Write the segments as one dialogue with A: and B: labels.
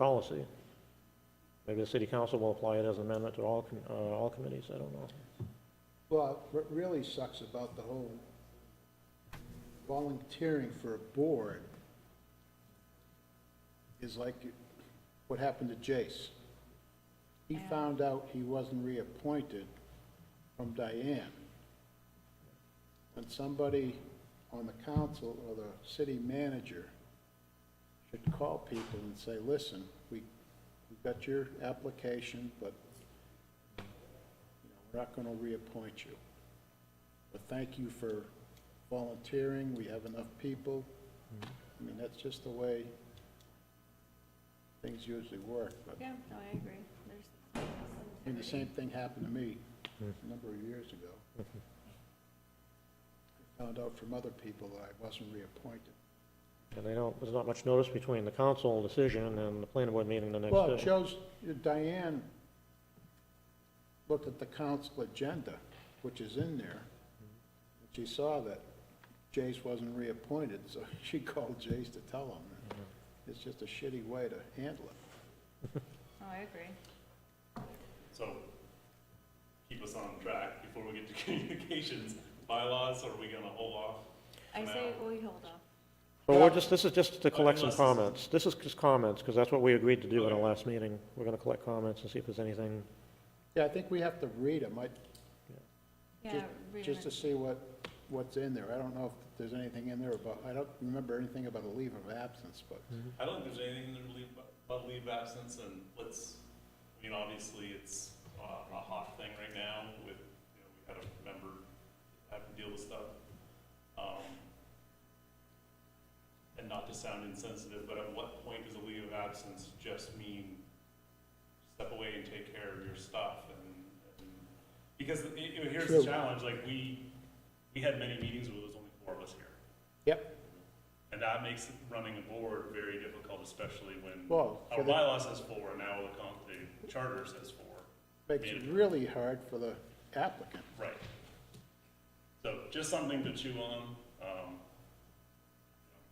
A: policy. Maybe the city council will apply it as an amendment to all, com- uh, all committees, I don't know.
B: Well, what really sucks about the whole volunteering for a board is like what happened to Jace. He found out he wasn't reappointed from Diane. When somebody on the council or the city manager should call people and say, listen, we, we got your application, but you know, we're not going to reappoint you. But thank you for volunteering, we have enough people. I mean, that's just the way things usually work, but,
C: Yeah, no, I agree. There's
B: I mean, the same thing happened to me a number of years ago. I Found out from other people that I wasn't reappointed.
A: And they don't, there's not much notice between the council decision and the planning board meeting the next day.
B: Well, it shows Diane looked at the council agenda, which is in there. and She saw that Jace wasn't reappointed, so she called Jace to tell him. It's just a shitty way to handle it.
C: No, I agree.
D: So, keep us on track before we get to communications bylaws, or are we gonna hold off?
C: I
D: for
C: say
D: now?
C: we hold off.
A: But we're just, this is just to collect some
D: Unless it's-
A: comments. This is just comments, because that's what we agreed to do in our
D: Okay.
A: last meeting. We're gonna collect comments and see if there's anything,
B: Yeah, I think we have to read them, I,
C: Yeah,
B: just,
C: read
B: just to
C: it.
B: see what, what's in there. I don't know if there's anything in there about, I don't remember anything about a leave of absence, but
D: I don't think there's anything to leave, about leave absence, and let's, I mean, obviously, it's uh, a hot thing right now with, you know, we had a member have to deal with stuff. Um, And not to sound insensitive, but at what point does a leave of absence just mean step away and take care of your stuff and, and, because, it- it- here's the
B: True.
D: challenge, like, we, we had many meetings where there was only four of us here.
B: Yep.
D: And that makes running a board very difficult, especially when
B: Well, for
D: our
B: the-
D: bylaw says four, and now the con- the charter says four.
B: makes it really hard for the applicant.
D: Right. So just something to chew on. Um,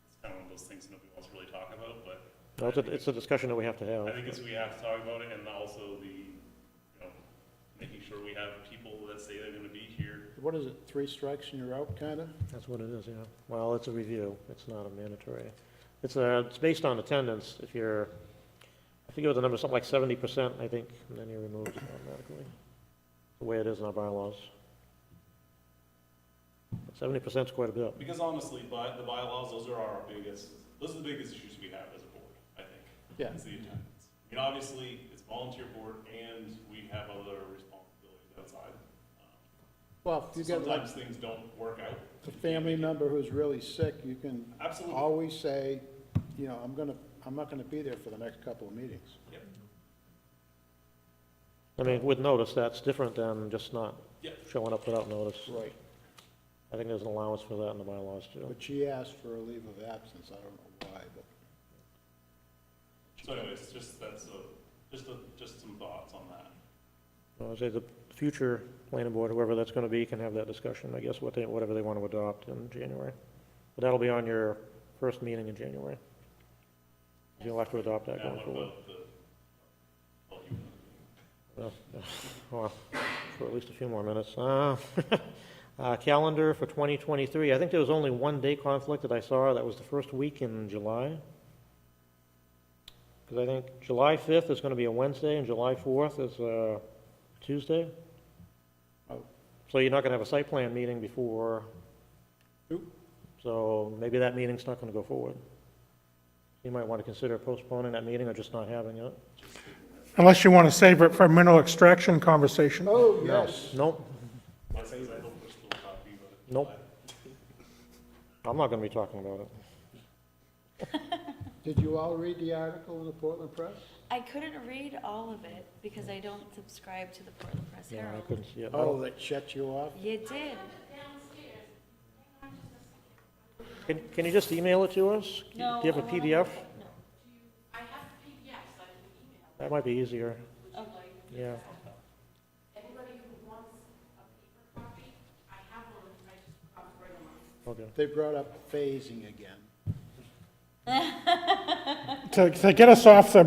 D: It's kind of one of those things nobody wants to really talk about, but
A: no, it's a, it's a discussion that we have to
D: I
A: have.
D: think it's, we have to talk about it, and also the, you know, making sure we have people that say they're gonna be here.
B: What is it, three strikes and you're out, kinda?
A: That's what it is, yeah. Well, it's a review, it's not a mandatory. It's a, it's based on attendance, if you're, I think it was a number, something like seventy percent, I think, and then you're removed automatically. The way it is in our bylaws. Seventy percent's quite a bit.
D: Because honestly, by, the bylaws, those are our biggest, those are the biggest issues we have as a board, I think.
B: Yeah.
D: Is the attendance. I mean, obviously, it's volunteer board and we have other responsibilities outside. Um,
B: Well, if you got like
D: Sometimes things don't work out.
B: a family member who's really sick, you can
D: Absolutely.
B: always say, you know, I'm gonna, I'm not gonna be there for the next couple of meetings.
D: Yep.
A: I mean, with notice, that's different than just not
D: Yeah.
A: showing up without notice.
B: Right.
A: I think there's an allowance for that in the bylaws, too.
B: But she asked for a leave of absence, I don't know why, but.
D: So anyways, just, that's a, just a, just some thoughts on that.
A: I would say the future planning board, whoever that's going to be, can have that discussion, I guess, what they, whatever they want to adopt in January. But that'll be on your first meeting in January. You'll have to adopt that
D: Now,
A: going
D: what
A: forward.
D: about the, well, you,
A: Well, yeah. Well, For at least a few more minutes. Uh, uh, Calendar for 2023, I think there was only one day conflict that I saw, that was the first week in July. Because I think July 5th is going to be a Wednesday, and July 4th is a Tuesday.
B: Oh.
A: So you're not going to have a site plan meeting before,
B: Nope.
A: so maybe that meeting's not going to go forward. You might want to consider postponing that meeting or just not having it.
E: Unless you want to save it for mineral extraction conversation.
B: Oh,
A: No.
B: yes.
A: Nope,
D: my things, I don't push the copy, but.
A: Nope. I'm not going to be talking about it.
B: Did you all read the article in the Portland Press?
C: I couldn't read all of it because I don't subscribe to the Portland Press
A: Yeah, I
C: Herald.
A: couldn't see it.
B: Oh, that shut you off?
C: You did.
A: Can, can you just email it to us?
C: No.
A: Do you have
C: I
A: a
C: wanna
A: PDF?
C: have it. No.
A: That might be easier,
C: Okay.
A: yeah. Anybody
B: They brought up phasing again.
E: To, to get us off the